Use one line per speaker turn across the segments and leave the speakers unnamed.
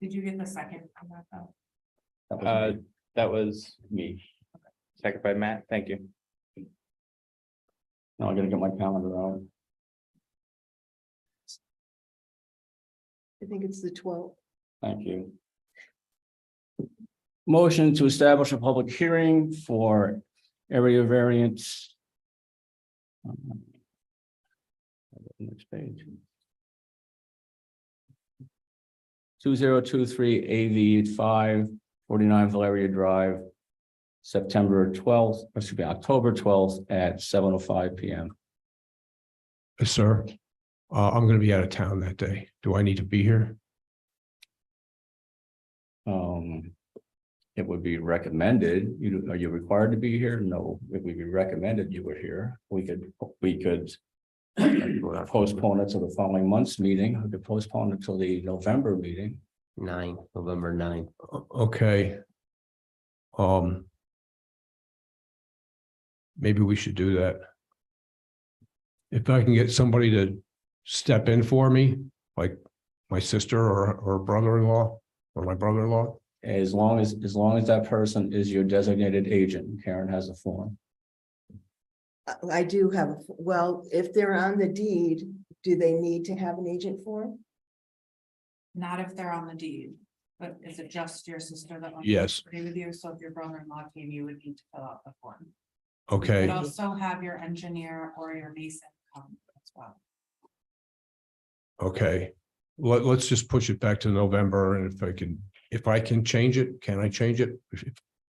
Did you get the second on that though?
That was
Uh,
me.
that was me. Second by Matt, thank you.
Now I gotta get my calendar out.
I think it's the twelfth.
Thank you. Motion to establish a public hearing for area variance. Um, Next page. Two zero two three AV five forty-nine Valeria Drive. September twelfth, excuse me, October twelfth at seven oh five P M.
Uh, Sir, uh, I'm gonna be out of town that day. Do I need to be here?
Um. It would be recommended, you, are you required to be here? No, it would be recommended you were here. We could, we could. Postpone it to the following month's meeting, we could postpone it till the November meeting.
Nine, November nine.
O- Okay. Um. Maybe we should do that. If I can get somebody to step in for me, like my sister or, or brother-in-law or my brother-in-law.
As long as, as long as that person is your designated agent, Karen has a form.
I do have, a f- well, if they're on the deed, do they need to have an agent form?
Not if they're on the deed, but is it just your sister that? owns the
Yes,
property with you, so if your brother-in-law came, you would need to fill out the form. You
okay.
could also have your engineer or your mason come as well.
Okay, let, let's just push it back to November and if I can, if I can change it, can I change it?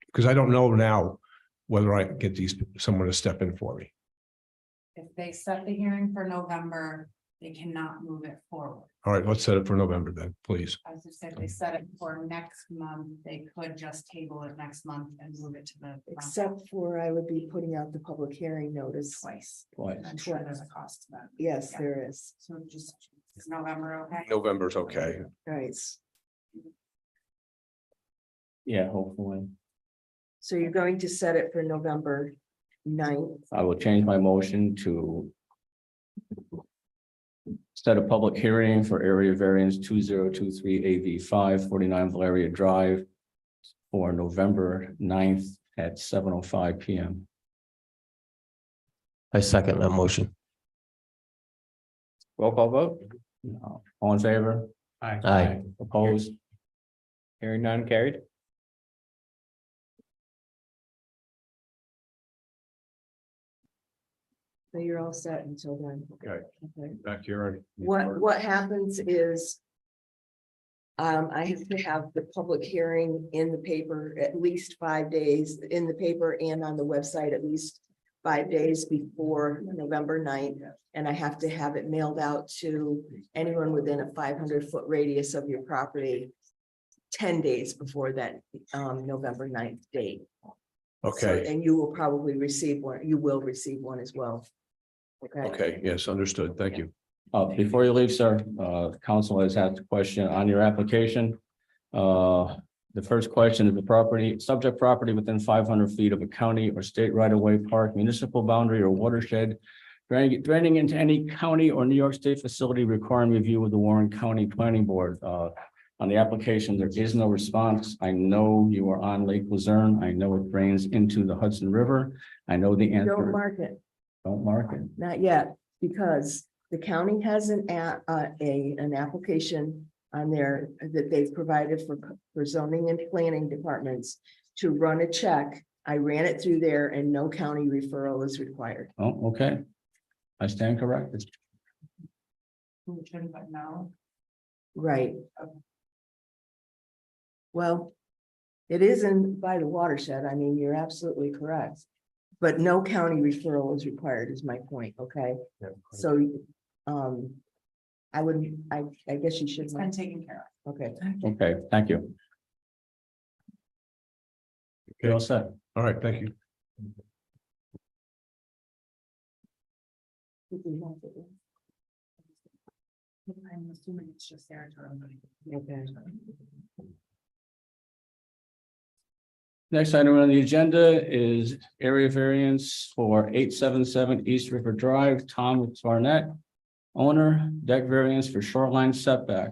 Because I don't know now whether I can get these, someone to step in for me.
If they set the hearing for November, they cannot move it forward.
All right, let's set it for November then, please.
As I said, they set it for next month, they could just table it next month and move it to the.
Except for I would be putting out the public hearing notice.
Twice,
Why?
and I'm sure there's a cost to that,
Yes,
Yeah.
there is.
so just, is November okay?
November's okay.
Right.
Yeah, hopefully.
So you're going to set it for November ninth.
I will change my motion to. Set a public hearing for area variance two zero two three AV five forty-nine Valeria Drive. For November 9th at seven oh five P M.
I second that motion.
Roll call vote? All in favor?
Aye.
Opposed?
Hearing none carried.
So you're all set until then.
Okay.
Okay.
Back here.
What, what happens is. Um, I have to have the public hearing in the paper at least five days, in the paper and on the website at least. Five days before November 9th, and I have to have it mailed out to anyone within a five hundred foot radius of your property. Ten days before that, um, November 9th date. So-
Okay,
And you will probably receive one, you will receive one as well.
okay, yes, understood. Thank you.
Uh, before you leave, sir, uh, council has asked a question on your application. Uh, the first question is the property, subject property within five hundred feet of a county or state right of way park, municipal boundary or watershed. Draining, draining into any county or New York State facility requiring review of the Warren County Planning Board, uh. On the application, there is no response. I know you are on Lake Luzerne. I know it drains into the Hudson River. I know the
Don't
answer.
mark it.
Don't mark it.
Not yet, because the county has an a, uh, a, an application on there that they've provided for, for zoning and planning departments to run a check. I ran it through there and no county referral is required.
Oh, okay. I stand corrected.
Who should, but no.
Right. Well, it is in by the watershed. I mean, you're absolutely correct. But no county referral is required is my point, okay? So, um, I would, I, I guess you should,
It's been taken care
okay.
Okay, thank you. You're all set.
All right, thank you.
of. I'm assuming it's just there to everybody.
Okay.
Next item on the agenda is area variance for eight seven seven East River Drive, Tom Barnett. Owner deck variance for shoreline setback.